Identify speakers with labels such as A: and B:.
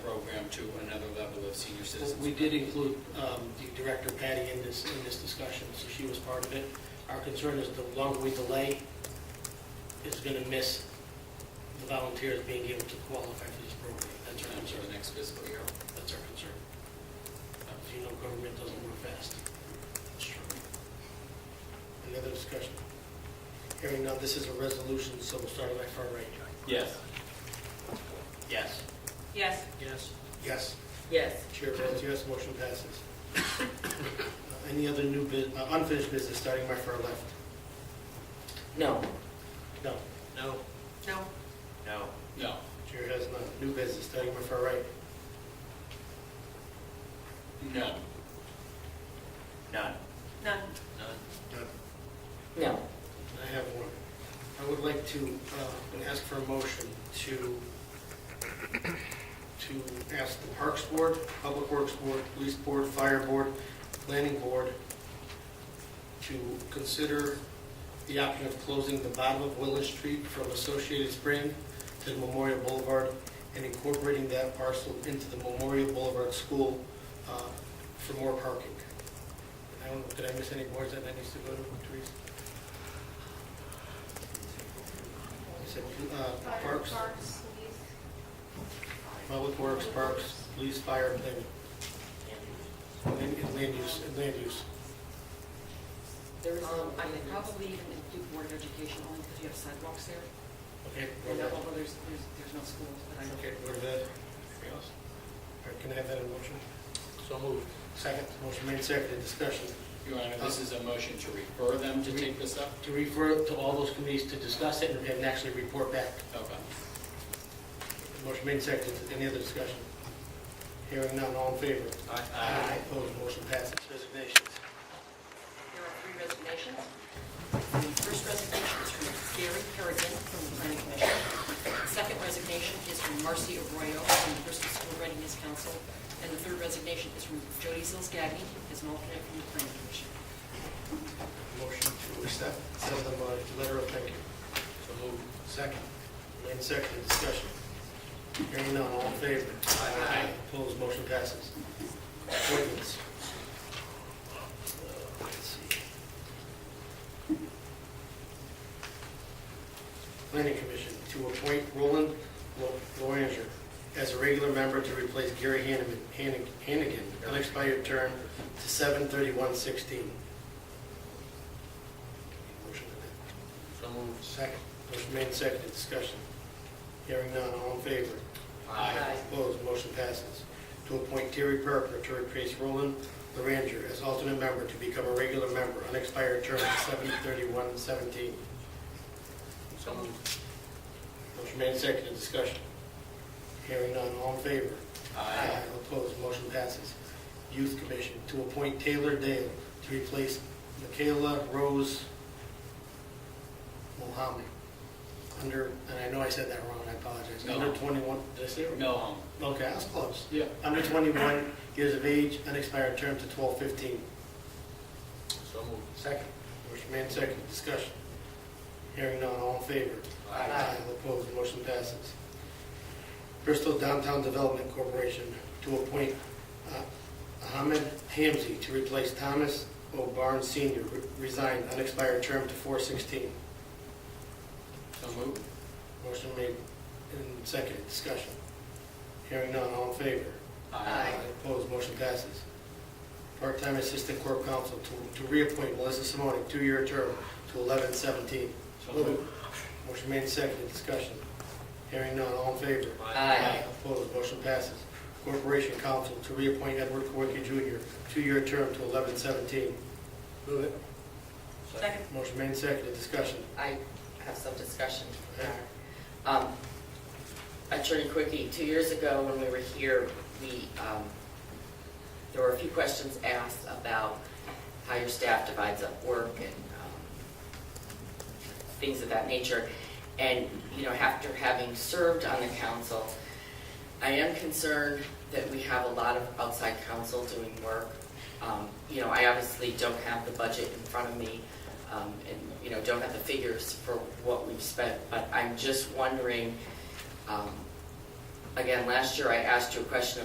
A: to another level of senior citizens.
B: We did include um, the Director Patty in this, in this discussion, so she was part of it. Our concern is the longer we delay, it's going to miss the volunteers being able to qualify for this program. That's our
A: For the
B: concern.
A: next fiscal year.
B: That's our concern. Uh, As you know, government doesn't work fast. That's true. Any other discussion? Hearing none, this is a resolution, so we'll start on my far right.
A: Yes.
B: Yes.
C: Yes.
B: Yes. Yes.
C: Yes.
B: Chair votes yes, motion passes. Uh, Any other new, bus- uh, unfinished business, starting my far left?
C: No.
B: No. No.
C: No.
D: No.
A: No.
B: Chair has none. New business, starting my far right?
A: No.
D: None.
C: None.
B: None.
C: No.
B: I have one. I would like to, uh, and ask for a motion to, to ask the Parks Board, Public Works Board, Police Board, Fire Board, Planning Board to consider the option of closing the bottom of Willis Street from Associated Spring to Memorial Boulevard and incorporating that parcel into the Memorial Boulevard School uh, for more parking. I don't, know, did I miss any boards that that needs to go to, Teresa? I said, uh,
E: Fire,
B: Parks,
E: Parks, police.
B: Public Works, Parks, Police, Fire, Planning. And and land use, and land use.
F: There's, um, I would probably even do board of education only because you have sidewalks there.
B: Okay.
F: And that, although there's, there's, there's no schools, but I know.
B: Okay, where that, anything else? All right, can I have that in motion?
A: So moved.
B: Second, motion made, seconded, discussion.
A: Your Honor, this is a motion to refer them to take this up?
B: To refer to all those committees to discuss it and and actually report back.
A: Okay.
B: Motion made, seconded, any other discussion? Hearing none, all in favor?
A: Aye.
B: Opposed, motion passes. Resignations.
F: There are three resignations. The first resignation is from Gary Kerrigan from the planning commission. The Second resignation is from Marcy Arroyo from the Bristol School Readiness Council. And the third resignation is from Jody Sills Gagnon as an alternate from the planning commission.
B: Motion to accept, send them a letter of thank you. So moved. Second. Made second, discussion. Hearing none, all in favor? Aye. Opposed, motion passes. Appointments. Uh, Let's see. Planning Commission to appoint Roland Lo- Loranger as a regular member to replace Gary Hanneman- Hannig- Hannigan, unexpired term to 7/31/16. Motion to
A: So moved.
B: Second. Motion made and seconded, discussion. Hearing none, all in favor?
A: Aye.
B: Opposed, motion passes. To appoint Terry Parker to replace Roland Laranger as alternate member to become a regular member, unexpired term of seven thirty-one seventeen.
F: So moved.
B: Motion made and seconded, discussion. Hearing none, all in favor?
A: Aye.
B: Opposed, motion passes. Youth Commission, to appoint Taylor Dale to replace Michaela Rose Mohammed. Under, and I know I said that wrong, I apologize.
A: No.
B: Under 21, did I say it wrong?
A: No, um,
B: Okay, that's close.
A: yeah.
B: Under 21 years of age, unexpired term to 12/15.
A: So moved.
B: Second. Motion made, second, discussion. Hearing none, all in favor?
A: Aye.
B: Opposed, motion passes. Bristol Downtown Development Corporation to appoint uh, Ahmed Hamzy to replace Thomas O. Barnes Senior, re- resigned, unexpired term to 4/16.
A: So moved.
B: Motion made and seconded, discussion. Hearing none, all in favor? Opposed, motion passes. Part-time Assistant Corp Counsel to- to reappoint Melissa Simone, two-year term to 11/17.
A: So moved.
B: Motion made and seconded, discussion. Hearing none, all in favor?
C: Aye.
B: Opposed, motion passes. Corporation Counsel to reappoint Edward Corke Jr., two-year term to 11/17. Move it.
C: Second.
B: Motion made and seconded, discussion.
G: I have some discussion. Um, Attorney Quickie, two years ago when we were here, we, um, there were a few questions asked about how your staff divides up work and um, things of that nature. And, you know, after having served on the council, I am concerned that we have a lot of outside counsel doing work. Um, You know, I obviously don't have the budget in front of me, um, and, you know, don't have the figures for what we've spent, but I'm just wondering, um, again, last year I asked you a question